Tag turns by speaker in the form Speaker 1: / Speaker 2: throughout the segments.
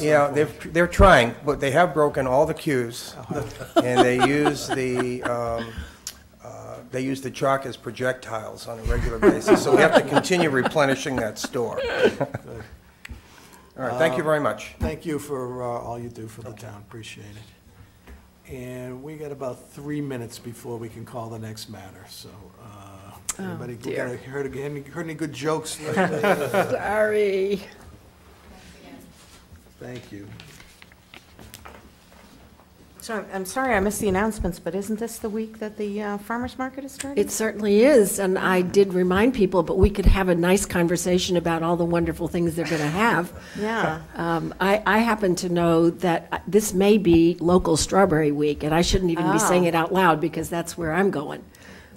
Speaker 1: You know, they're, they're trying, but they have broken all the cues, and they use the, um, uh, they use the chalk as projectiles on a regular basis, so we have to continue replenishing that store. All right, thank you very much.
Speaker 2: Thank you for uh, all you do for the town, appreciate it. And we got about three minutes before we can call the next matter, so. uh,
Speaker 3: Oh,
Speaker 2: anybody got-
Speaker 3: dear.
Speaker 2: Heard any- heard any good jokes lately?
Speaker 3: Sorry.
Speaker 2: Thank you.
Speaker 4: So I'm- I'm sorry I missed the announcements, but isn't this the week that the uh, farmer's market is starting?
Speaker 3: It certainly is, and I did remind people, but we could have a nice conversation about all the wonderful things they're going to have.
Speaker 4: Yeah.
Speaker 3: Um, I, I happen to know that uh, this may be local Strawberry Week, and I shouldn't even be saying
Speaker 4: Oh.
Speaker 3: it out loud because that's where I'm going.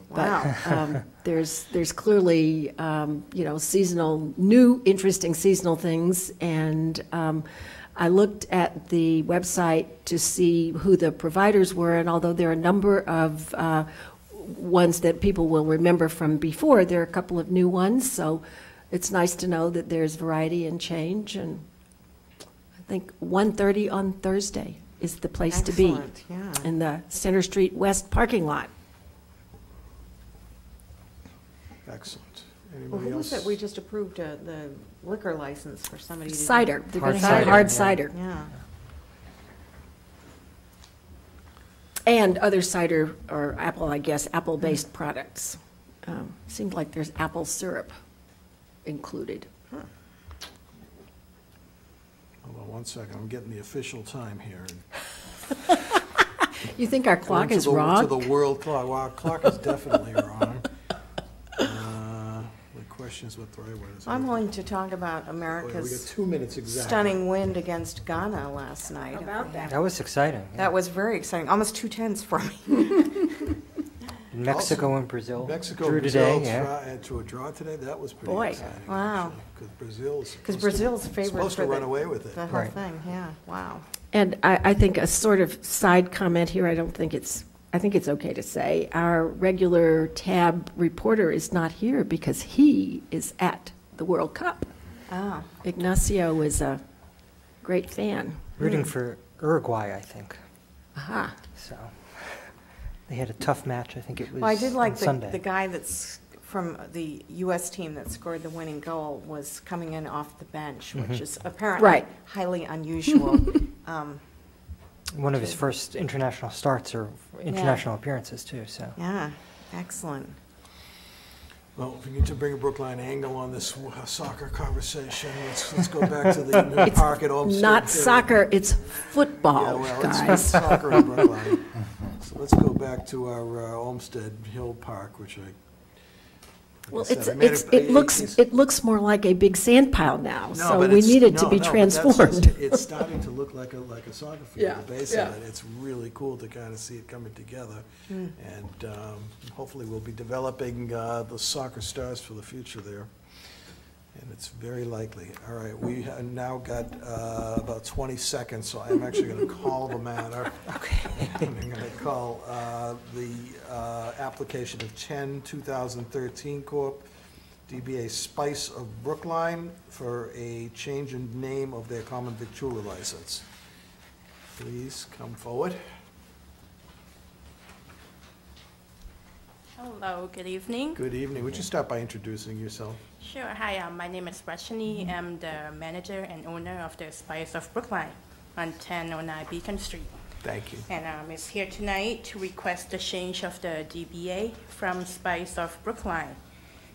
Speaker 4: Wow.
Speaker 3: But um, there's, there's clearly, um, you know, seasonal, new, interesting seasonal things. And um, I looked at the website to see who the providers were, and although there are a number of uh, ones that people will remember from before, there are a couple of new ones. So it's nice to know that there's variety and change. And I think 1:30 on Thursday is the place to be.
Speaker 4: Excellent, yeah.
Speaker 3: In the Center Street West parking lot.
Speaker 2: Excellent.
Speaker 4: Well,
Speaker 2: Anybody
Speaker 4: who was it?
Speaker 2: else?
Speaker 4: We just approved uh, the liquor license for somebody to. do-
Speaker 3: Cider, they're going
Speaker 2: Hard
Speaker 3: to have
Speaker 2: cider.
Speaker 3: hard cider,
Speaker 4: Yeah.
Speaker 3: and other cider or apple, I guess, apple-based products. Um, Seemed like there's apple syrup included.
Speaker 2: Hold on one second, I'm getting the official time here.
Speaker 3: You think our
Speaker 2: According
Speaker 3: clock
Speaker 2: to
Speaker 3: is
Speaker 2: the-
Speaker 3: wrong?
Speaker 2: To the world clock, well, our clock is definitely wrong. Uh, The question is what the right word is.
Speaker 4: I'm willing to talk about
Speaker 2: Oh, yeah, We got
Speaker 4: America's
Speaker 2: two minutes exactly.
Speaker 4: stunning win against Ghana last night.
Speaker 5: That was exciting. yeah.
Speaker 4: That was very exciting, almost two tenths for me.
Speaker 5: Mexico and Brazil.
Speaker 2: Mexico,
Speaker 5: drew
Speaker 2: Brazil,
Speaker 5: today, yeah.
Speaker 2: try- uh, to a draw today, that was pretty
Speaker 3: Boy.
Speaker 2: exciting.
Speaker 4: Wow.
Speaker 2: Because Brazil's.
Speaker 4: Because
Speaker 2: supposed to-
Speaker 4: Brazil's favorite
Speaker 2: Supposed
Speaker 4: for
Speaker 2: to run
Speaker 4: the,
Speaker 2: away with
Speaker 4: the
Speaker 2: it.
Speaker 4: whole
Speaker 5: Right.
Speaker 4: thing, yeah, wow.
Speaker 3: And I, I think a sort of side comment here, I don't think it's, I think it's okay to say, our regular tab reporter is not here because he is at the World Cup.
Speaker 4: Oh,
Speaker 3: Ignacio was a great fan.
Speaker 4: Hmm.
Speaker 5: Rooting for Uruguay, I think.
Speaker 3: Aha.
Speaker 5: So they had a tough match. I think it was
Speaker 4: well, I did like
Speaker 5: on
Speaker 4: the,
Speaker 5: Sunday.
Speaker 4: the guy that's from the US team that scored the winning goal was coming in off the bench, which
Speaker 5: Mm-hmm.
Speaker 4: is apparently
Speaker 3: Right.
Speaker 4: highly unusual. Um,
Speaker 5: One of his first international starts or international appearances too. So
Speaker 4: Yeah, excellent.
Speaker 2: Well, if we need to bring a Brookline angle on this w- soccer conversation, let's, let's go back to the new park at Olmsted.
Speaker 3: Not
Speaker 2: Field.
Speaker 3: soccer, it's
Speaker 2: Yeah,
Speaker 3: football,
Speaker 2: well, it's not
Speaker 3: guys.
Speaker 2: soccer in Brookline. So let's go back to our uh, Olmsted Hill Park, which I. like I
Speaker 3: Well,
Speaker 2: said,
Speaker 3: it's,
Speaker 2: I made
Speaker 3: it's,
Speaker 2: a-
Speaker 3: it looks,
Speaker 2: it's-
Speaker 3: it looks more like a big sand pile now,
Speaker 2: No,
Speaker 3: so
Speaker 2: but
Speaker 3: we
Speaker 2: it's-
Speaker 3: need it to
Speaker 2: no,
Speaker 3: be
Speaker 2: no, but that's-
Speaker 3: transformed.
Speaker 2: It's starting to look like a, like a soccer
Speaker 3: Yeah,
Speaker 2: field, the base
Speaker 3: yeah. Hmm.
Speaker 2: of it. It's really cool to kind of see it coming together. And um, hopefully we'll be developing uh, the soccer stars for the future there. And it's very likely. All right, we have now got uh, about 20 seconds, so I'm actually going to call the matter. Okay. I'm going to call uh, the uh, application of 10, 2013 Corp., DBA Spice of Brookline for a change in name of their common victualer license. Please come forward.
Speaker 6: Hello, good evening.
Speaker 2: Good evening. Would you start by introducing yourself?
Speaker 6: Sure, hi, uh, my name is Rashni. I'm the manager and owner of the Spice of Brookline on 1009 Beacon Street.
Speaker 2: Thank you.
Speaker 6: And um, is here tonight to request the change of the DBA from Spice of Brookline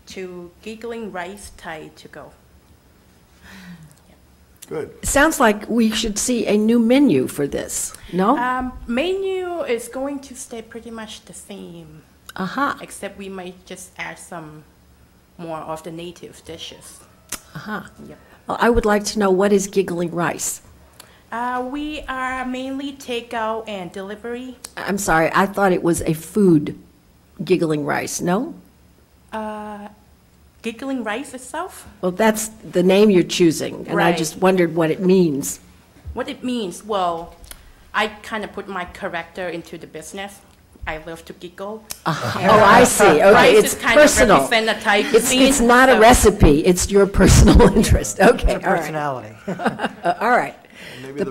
Speaker 6: to Giggling Rice Thai to go.
Speaker 2: Good.
Speaker 3: Sounds like we should see a new menu for this, no?
Speaker 6: Um, Menu is going to stay pretty much the same,
Speaker 3: Aha,
Speaker 6: except we might just add some more of the native dishes.
Speaker 3: aha.
Speaker 6: Yep.
Speaker 3: Uh-huh. Well, I would like to know what is giggling rice?
Speaker 6: Uh, We are mainly takeout and delivery.
Speaker 3: I'm sorry, I thought it was a food, giggling rice, no?
Speaker 6: Uh, giggling rice itself,
Speaker 3: Well, that's the name you're choosing, and I
Speaker 6: Right.
Speaker 3: just wondered what it means.
Speaker 6: what it means, well, I kind of put my character into the business. I love to giggle.
Speaker 3: Oh, I see, okay,
Speaker 6: rice
Speaker 3: it's
Speaker 6: is kind of
Speaker 3: personal.
Speaker 6: represent a Thai
Speaker 3: It's,
Speaker 6: cuisine.
Speaker 3: it's not a
Speaker 6: so-
Speaker 3: recipe, it's your personal interest, okay, all right.
Speaker 5: personality.
Speaker 3: Uh, All right,
Speaker 7: Maybe
Speaker 2: The